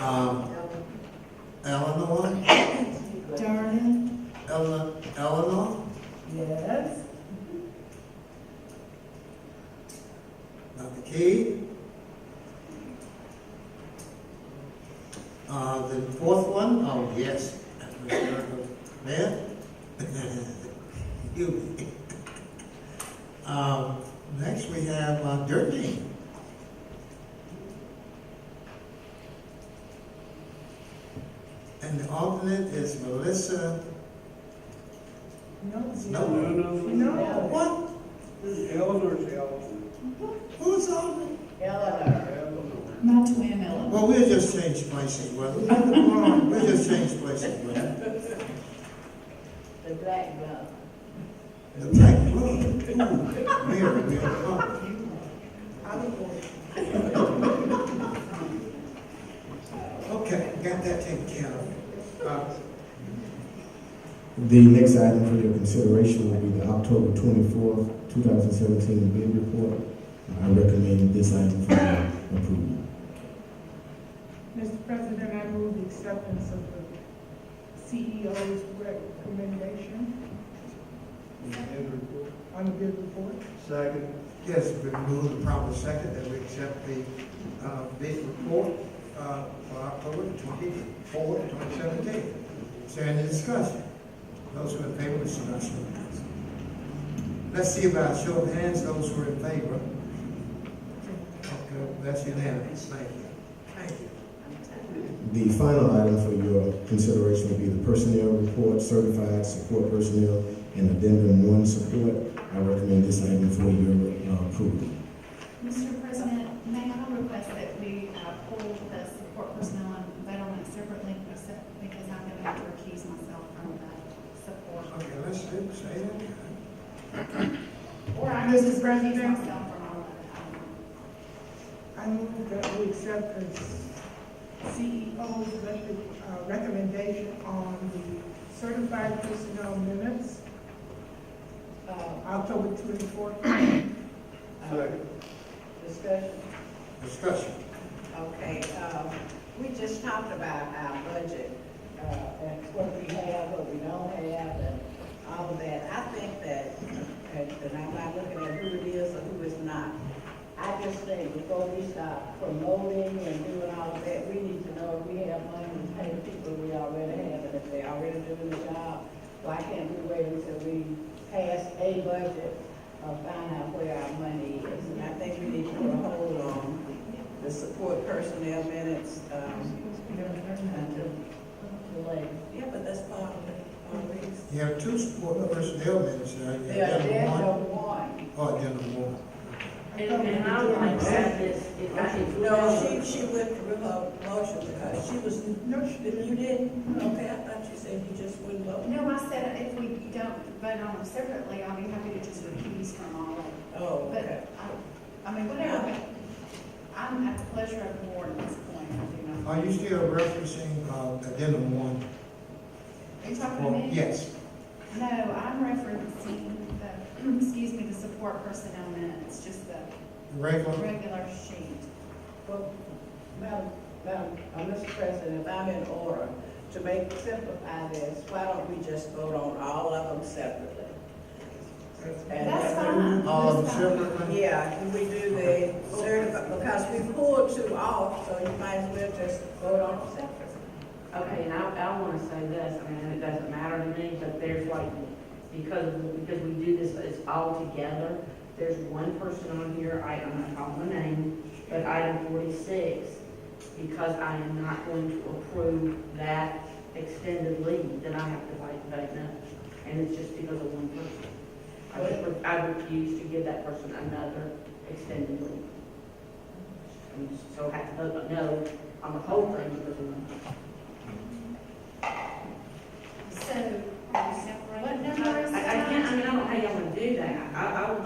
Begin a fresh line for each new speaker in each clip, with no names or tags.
um, Eleanor,
Darden?
Ele- Eleanor,
Yes.
Dr. Mm-hmm. Key. Uh, the fourth one, oh, yes. Mayor? You. Um, next we have uh, Dirty. And the alternate is Melissa,
No.
No.
No, no,
No.
what,
Eleanor's the alternate.
who's alternate?
Eleanor.
Eleanor.
Not to win, Eleanor.
Well, we'll just change places, well, we'll just change places, well,
The black glove.
the black blood, ooh, Mary, Mary, oh. Okay, got that taken care of. Uh,
The next item for your consideration will be the October twenty-fourth, two thousand seventeen bid report. I recommend this item for your approval.
Mr. President, I move the acceptance of the CEO's recommendation
Bid report.
on the bid report.
Second.
Yes, we move the proper second that we accept the, uh, bid report, uh, for October twenty-four, twenty seventeen. Is there any discussion? Those who are in favor, this is not show of hands. Let's see about show of hands, those who are in favor. Okay, that's unanimous, thank you. Thank you.
The final item for your consideration will be the personnel report, certified support personnel, and addendum one support. I recommend this item for your uh, approval.
Mr. President, may I request that we uh, pull the support personnel and veterans separately, except because I'm going to have to recuse myself from the support.
Okay, let's do, say that.
Or I can
Mrs.
just recuse
President?
myself from all of it.
I move that we accept the CEO's rec- uh, recommendation on the certified personnel minutes,
Uh,
October twenty-fourth.
Second.
um, discussion,
Discussion.
okay, um, we just talked about our budget, uh, and what we have, what we don't have, and all of that. I think that, and and I'm not looking at who it is or who it's not. I just think before we start promoting and doing all of that, we need to know if we have money to pay the people we already have, and if they already doing the job, why can't we wait until we pass a budget or find out where our money is? And I think we need to put a hold on the support personnel minutes, um, until, until later. Yeah, but that's part of it, always.
You have two support personnel minutes, uh, you
They are
have
dead, no
one,
one.
oh, then one.
And, and I would like to add this, if I can.
No, she, she withdrew her motion because she was,
No, she
you didn't? Okay, I thought you said you just wouldn't vote.
No, I said if we don't vote on them separately, I'll be happy to just recuse from all of it.
Oh, okay.
But, I, I mean, whatever, I'm at the pleasure of the board at this point, I do not.
Are you still referencing, uh, addendum one?
Are you talking to me?
Yes.
No, I'm referencing the, excuse me, the support personnel minutes, just the
Regular?
regular sheet.
Well, Madam, Madam, uh, Mr. President, if I'm in order, to make, simplify this, why don't we just vote on all of them separately? And-
That's fine.
All of
That's
them
fine.
separately?
Yeah, and we do the certified, because we pulled two off, so you might as well just vote on them separately.
Okay, and I, I wanna say this, and it doesn't matter to me, but there's like, because, because we do this, it's all together. There's one person on here, I, I'm not calling the name, but item forty-six, because I am not going to approve that extended leave, then I have to vote, vote no. And it's just because of one person. I just, re- I refuse to give that person another extended leave. And so I have to vote no on the whole thing because of one person.
So, what number is
I, I
that?
can't, I mean, I don't know how y'all would do that, I, I would.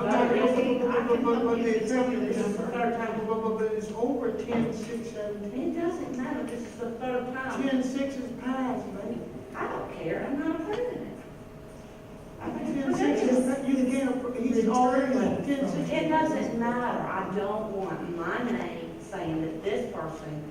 Third time.
But it's over ten, six, seven,
It doesn't matter, this is the third time,
ten, six is passed, man.
I don't care, I'm not approving it. I think
Ten,
it's
six is,
ridiculous.
you can't, he's already, ten, six.
It doesn't matter, I don't want my name saying that this person